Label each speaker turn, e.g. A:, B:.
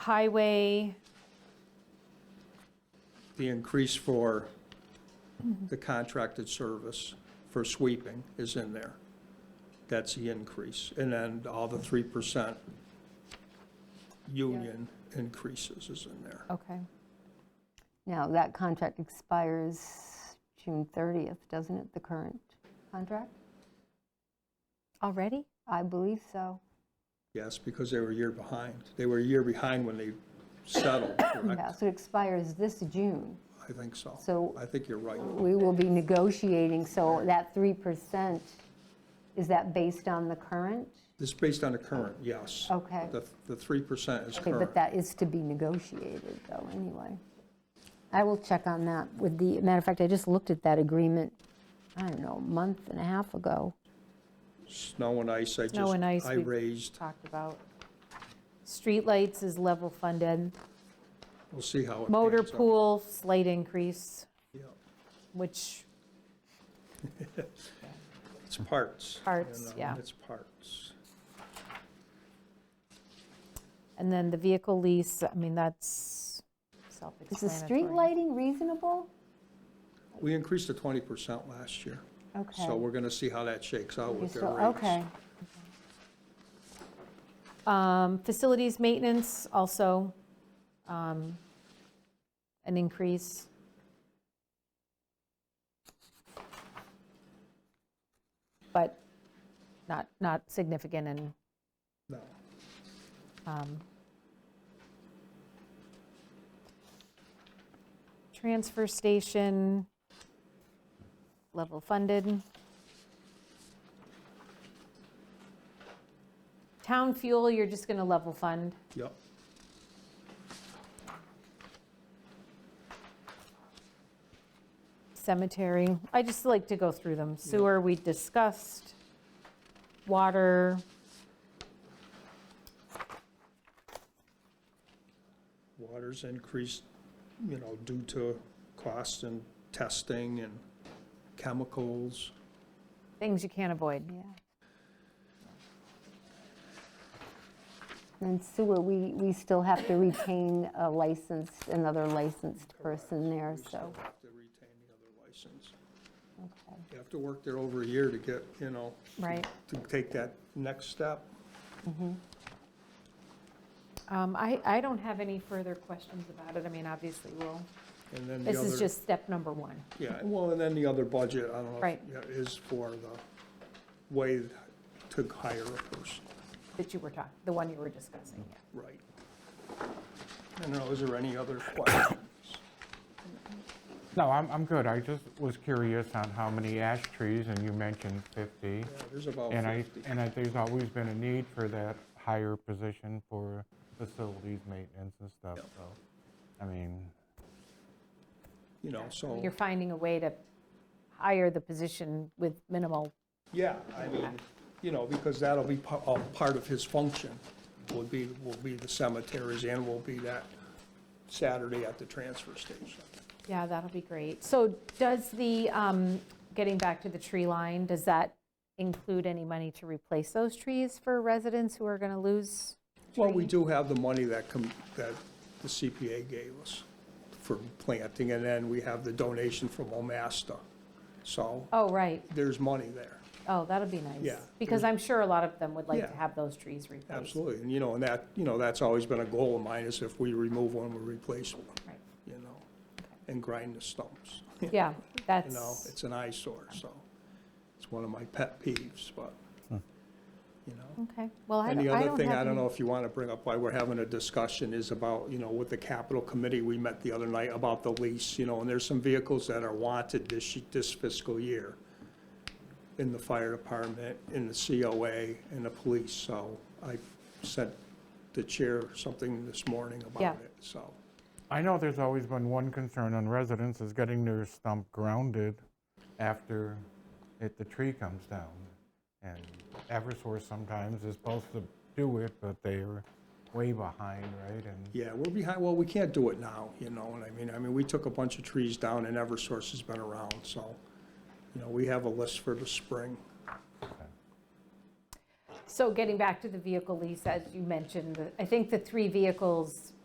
A: highway,
B: the increase for the contracted service for sweeping is in there. That's the increase. And then all the 3% union increases is in there.
A: okay.
C: Now, that contract expires June 30th, doesn't it, the current contract?
A: Already?
C: I believe so.
B: Yes, because they were a year behind. They were a year behind when they settled, correct?
C: Yeah, so it expires this June.
B: I think so.
C: So-
B: I think you're right.
C: We will be negotiating, so that 3%, is that based on the current?
B: This is based on the current, yes.
C: Okay.
B: The, the 3% is
C: Okay,
B: current.
C: but that is to be negotiated, though, anyway. I will check on that with the, matter of fact, I just looked at that agreement, I don't know, a month and a half ago.
B: Snow and ice, I just,
A: Snow and ice.
B: I
A: we've
B: raised,
A: Talked about. Streetlights is level funded.
B: we'll see how it
A: Motor
B: pans out.
A: pool, slight increase,
B: Yeah.
A: which,
B: It's parts. you
A: Parts,
B: know,
A: yeah.
B: It's parts.
A: and then the vehicle lease, I mean, that's
C: Is the
A: self-explanatory.
C: street lighting reasonable?
B: We increased to 20% last year.
C: Okay.
B: So we're going to see how that shakes out
C: You're
B: with their
C: still-
B: rates.
C: Okay,
A: Um, Facilities maintenance, also um, an increase. But not, not significant and
B: No.
A: um, transfer station, level funded. Town fuel, you're just going to level fund.
B: Yep.
A: Cemetery, I just like to go through them. Sewer, we discussed. Water,
B: Water's increased, you know, due to cost and testing and chemicals.
A: things you can't avoid.
C: yeah. And sewer, we, we still have to retain a licensed, another licensed person there,
B: We
C: so,
B: still have to retain the other license.
C: okay.
B: You have to work there over a year to get, you know,
A: Right.
B: to take that next step.
A: Um, I, I don't have any further questions about it. I mean, obviously, we'll,
B: And then the
A: this is
B: other,
A: just step number one.
B: yeah, well, and then the other budget, I don't know. if-
A: Right.
B: yeah, Is for the way to hire a person.
A: that you were talking, the one you were discussing, yeah.
B: Right. I don't know, is there any other questions?
D: No, I'm, I'm good. I just was curious on how many ash trees, and you mentioned 50.
B: Yeah, There's about
D: And I,
B: 50.
D: and I, there's always been a need for that higher position for facilities maintenance and stuff,
B: Yep.
D: so, I mean,
B: You know, so,
A: You're finding a way to hire the position with minimal,
B: yeah, I mean, you know, because that'll be pa- all part of his function, will be, will be the cemeteries and will be that Saturday at the transfer station.
A: yeah, that'll be great. So does the, um, getting back to the tree line, does that include any money to replace those trees for residents who are going to lose?
B: Well, we
A: tree?
B: do have the money that com, that the CPA gave us for planting, and then we have the donation from Omasta. So
A: Oh, right,
B: there's money there.
A: oh, that'll be nice.
B: Yeah.
A: Because I'm sure a lot of them would like to
B: Yeah.
A: have those trees replaced.
B: Absolutely, and you know, and that, you know, that's always been a goal of mine, is if we remove one, we replace one,
A: Right.
B: you know, and grind the stumps.
A: Yeah,
B: You know,
A: that's,
B: it's an eyesore, so it's one of my pet peeves, but, you know.
A: okay, well, I
B: And
A: don't
B: the
A: I
B: other
A: don't
B: thing,
A: have
B: I don't
A: any-
B: know if you want to bring up why we're having a discussion is about, you know, with the capital committee, we met the other night about the lease, you know, and there's some vehicles that are wanted this, y- this fiscal year in the fire department, in the COA, in the police, so I sent the chair something this morning
A: Yeah.
B: about it, so.
D: I know there's always been one concern on residents is getting their stump grounded after it, the tree comes down. And Eversource sometimes is supposed to do it, but they're way behind, right? And
B: Yeah, we're behind, well, we can't do it now, you know what I mean? I mean, we took a bunch of trees down and Eversource has been around, so, you know, we have a list for the spring.
A: So getting back to the vehicle lease, as you mentioned, I think the three vehicles